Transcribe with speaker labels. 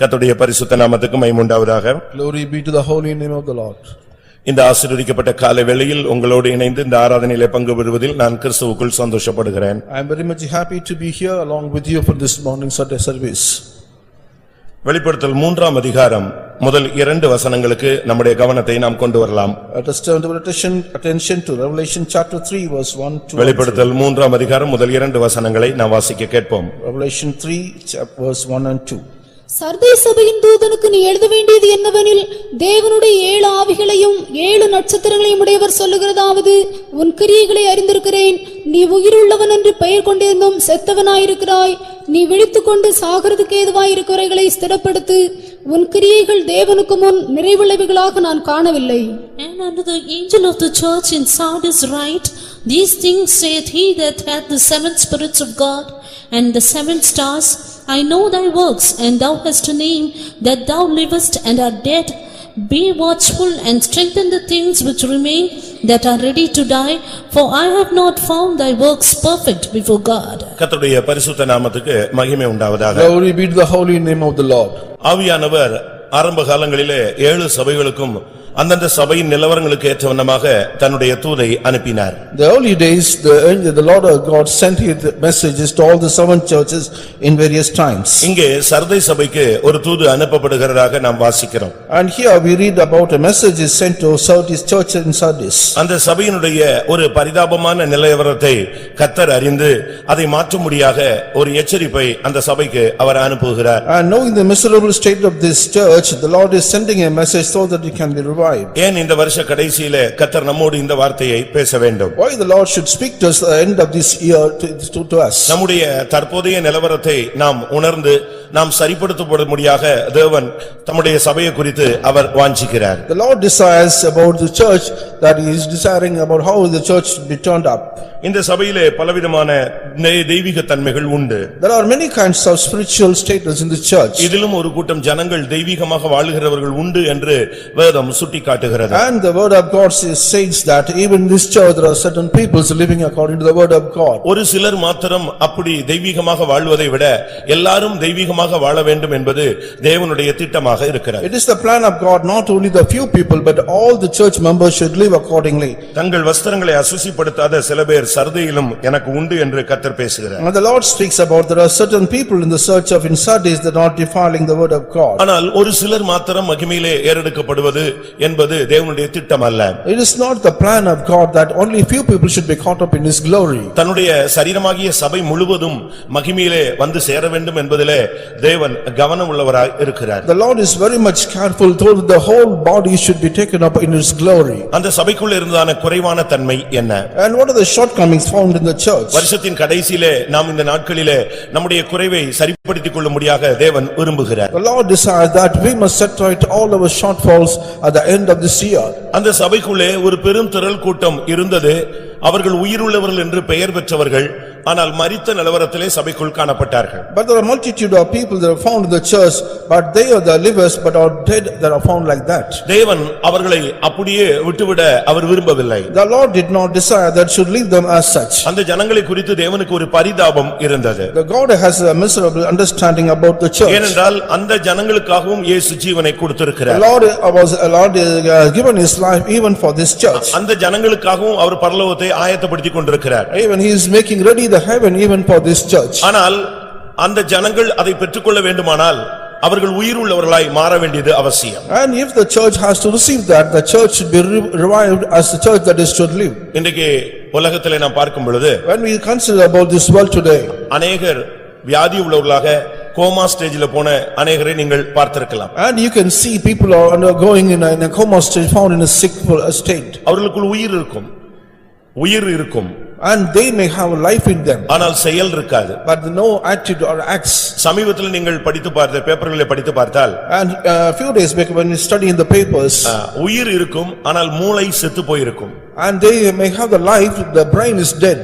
Speaker 1: கர்த்தருடைய பரிசுத்த நாமத்துக்கு மைமுண்டாவதாக
Speaker 2: Glory be to the holy name of the Lord.
Speaker 1: இந்த ஆசீர்வதிக்கப்பட்ட காலை வேளையில் உங்களோடு இணைந்து இந்த ஆராதனையிலே பங்கு பெறுவதில் நான் கிறிஸ்துவுக்குள் சந்தோஷப்படுகிறேன்
Speaker 2: I am very much happy to be here along with you for this morning Sunday service.
Speaker 1: வெளிப்படுத்தல் மூன்றாம் அதிகாரம் முதல் இரண்டு வசனங்களுக்கு நம்முடைய கவனத்தை நாம் கொண்டு வரலாம்
Speaker 2: Let us turn our attention attention to Revelation chapter 3 verse 1 to
Speaker 1: வெளிப்படுத்தல் மூன்றாம் அதிகாரம் முதல் இரண்டு வசனங்களை நாம் வாசிக்க கேட்போம்
Speaker 2: Revelation 3 chap- verse 1 and 2.
Speaker 3: Sardis சபையின் தூதனுக்கு நீ எழுத வேண்டியது என்னவெனில் தேவனுடைய ஏழு ஆவிகளையும் ஏழு நட்சத்திரங்களையும் உடையவர் சொல்லுகிறதாவது உன் கிரியைகளை அறிந்திருக்கிறேன் நீ உயிருள்ளவன் என்று பெயர் கொண்டிருந்தும் செத்தவனாயிருக்கிறாய் நீ விழித்துக்கொண்டு சாகிறதுக்கு ஏதுவாயிருக்கிறவைகளை ஸ்திரப்படுத்து உன் கிரியைகள் தேவனுக்கு முன் நிறைவுள்ளவைகளாக நான் காணவில்லை
Speaker 4: And unto the angel of the church in Sardis write, These things saith he that hath the seven spirits of God and the seven stars, I know thy works, and thou hast a name, that thou livest and art dead. Be watchful and strengthen the things which remain that are ready to die, for I have not found thy works perfect before God.
Speaker 1: கர்த்தருடைய பரிசுத்த நாமத்துக்கு மகிமை உண்டாவதாக
Speaker 2: Glory be to the holy name of the Lord.
Speaker 1: ஆவியானவர் ஆரம்ப காலங்களிலே ஏழு சபைகளுக்கும் அந்தந்த சபையின் நிலவரங்களுக்கு ஏற்றவண்ணமாக தன்னுடைய தூதை அனுப்பினார்
Speaker 2: The early days, the angel- the Lord our God sent his messages to all the seven churches in various times.
Speaker 1: இங்கே சர்தை சபைக்கு ஒரு தூது அனுப்பப்படுகிறதாக நாம் வாசிக்கிறோம்
Speaker 2: And here we read about a message is sent to Sardis church in Sardis.
Speaker 1: அந்த சபையினுடைய ஒரு பரிதாபமான நிலவரத்தை கத்தர் அறிந்து அதை மாற்றும்படியாக ஒரு எச்சரிப்பை அந்த சபைக்கு அவர் அனுப்புகிறார்
Speaker 2: And knowing the miserable state of this church, the Lord is sending a message so that it can be revived.
Speaker 1: ஏன் இந்த வருஷ கடைசியிலே கத்தர் நம்மோடு இந்த வார்த்தையை பேச வேண்டும்
Speaker 2: Why the Lord should speak to us at the end of this year to- to to us?
Speaker 1: நம்முடைய தற்போதைய நிலவரத்தை நாம் உணர்ந்து நாம் சரிப்படுத்தப்படும்படியாக தேவன் தம்முடைய சபையை குறித்து அவர் வாஞ்சிக்கிறார்
Speaker 2: The Lord desires about the church that he is desiring about how the church should be turned up.
Speaker 1: இந்த சபையிலே பலவிதமான நெய்- தெய்வீக தன்மைகள் உண்டு
Speaker 2: There are many kinds of spiritual status in the church
Speaker 1: இதிலும் ஒரு கூட்டம் ஜனங்கள் தெய்வீகமாக வாழுகிறவர்கள் உண்டு என்று வேதம் சுட்டிக்காட்டுகிறது
Speaker 2: and the word of God says says that even in this church there are certain peoples living according to the word of God.
Speaker 1: ஒரு சிலர் மாத்திரம் அப்படி தெய்வீகமாக வாழ்வதை விட எல்லாரும் தெய்வீகமாக வாழ வேண்டும் என்பது தேவனுடைய திட்டமாக இருக்கிறது
Speaker 2: It is the plan of God, not only the few people but all the church members should live accordingly.
Speaker 1: தங்கள் வஸ்திரங்களை அசுசிப்படுத்தாத சில பேர் சர்தையிலும் எனக்கு உண்டு என்று கத்தர் பேசுகிறார்
Speaker 2: Now the Lord speaks about there are certain people in the search of in Sardis that are defiling the word of God.
Speaker 1: ஆனால் ஒரு சிலர் மாத்திரம் மகிமையிலே ஏறெடுக்கப்படுவது என்பது தேவனுடைய திட்டம் அல்ல
Speaker 2: It is not the plan of God that only few people should be caught up in his glory.
Speaker 1: தன்னுடைய சரீரமாகிய சபை முழுவதும் மகிமையிலே வந்து சேர வேண்டும் என்பதிலே தேவன் கவனம் உள்ளவராய் இருக்கிறார்
Speaker 2: The Lord is very much careful though that the whole body should be taken up in his glory.
Speaker 1: அந்த சபைக்குள்ள இருந்தான குறைவான தன்மை என்ன
Speaker 2: And what are the shortcomings found in the church?
Speaker 1: வருஷத்தின் கடைசியிலே நாம் இந்த நாட்களிலே நம்முடைய குறைவை சரிப்படுத்திக் கொள்ளும்படியாக தேவன் விரும்புகிறார்
Speaker 2: The Lord desires that we must set right all our shortfalls at the end of this year.
Speaker 1: அந்த சபைக்குள்ளே ஒரு பெரும் திரள் கூட்டம் இருந்தது அவர்கள் உயிருள்ளவர்கள் என்று பெயர் பெற்றவர்கள் ஆனால் மரித்த நிலவரத்திலே சபைக்குள் காணப்பட்டார்கள்
Speaker 2: But there are multitude of people that are found in the church, but they are the livers but are dead that are found like that.
Speaker 1: தேவன் அவர்களை அப்படியே விட்டுவிட அவர் விரும்பவில்லை
Speaker 2: The Lord did not desire that should leave them as such.
Speaker 1: அந்த ஜனங்களை குறித்து தேவனுக்கு ஒரு பரிதாபம் இருந்தது
Speaker 2: The God has a miserable understanding about the church.
Speaker 1: ஏனென்றால் அந்த ஜனங்களுக்காகவும் இயேசு ஜீவனை
Speaker 2: The
Speaker 1: கொடுத்திருக்கிறார்
Speaker 2: Lord was, the Lord uh, given his life even for this church.
Speaker 1: அந்த ஜனங்களுக்காகவும் அவர் பரலோகத்தை ஆயத்தப்படுத்திக் கொண்டிருக்கிறார்
Speaker 2: Even he is making ready the heaven even for this church.
Speaker 1: ஆனால் அந்த ஜனங்கள் அதை பெற்றுக்கொள்ள வேண்டுமானால் அவர்கள் உயிருள்ளவர்களாய் மாற வேண்டியது அவசியம்
Speaker 2: And if the church has to receive that, the church should be re- revived as the church that is should live.
Speaker 1: இன்றைக்கு உலகத்திலே நாம் பார்க்கும் பொழுது
Speaker 2: When we consider about this world today,
Speaker 1: அநேகர் வியாதி உள்ளவர்களாக கோமா ஸ்டேஜில் போன அநேகரை நீங்கள் பார்த்திருக்கலாம்
Speaker 2: and you can see people are undergoing in a in a coma state, found in a sick state,
Speaker 1: அவர்களுக்குள் உயிர் இருக்கும் உயிர் இருக்கும்
Speaker 2: and they may have life in them,
Speaker 1: ஆனால் செயல் இருக்காது
Speaker 2: but no attitude or acts.
Speaker 1: சமீபத்தில் நீங்கள் படித்து பார்த்த பேப்பர்களை படித்து பார்த்தால்
Speaker 2: And uh, a few days back, when we study in the papers,
Speaker 1: அஹ், உயிர் இருக்கும் ஆனால் மூளை செத்து போயிருக்கும்
Speaker 2: and they may have the life, the brain is dead.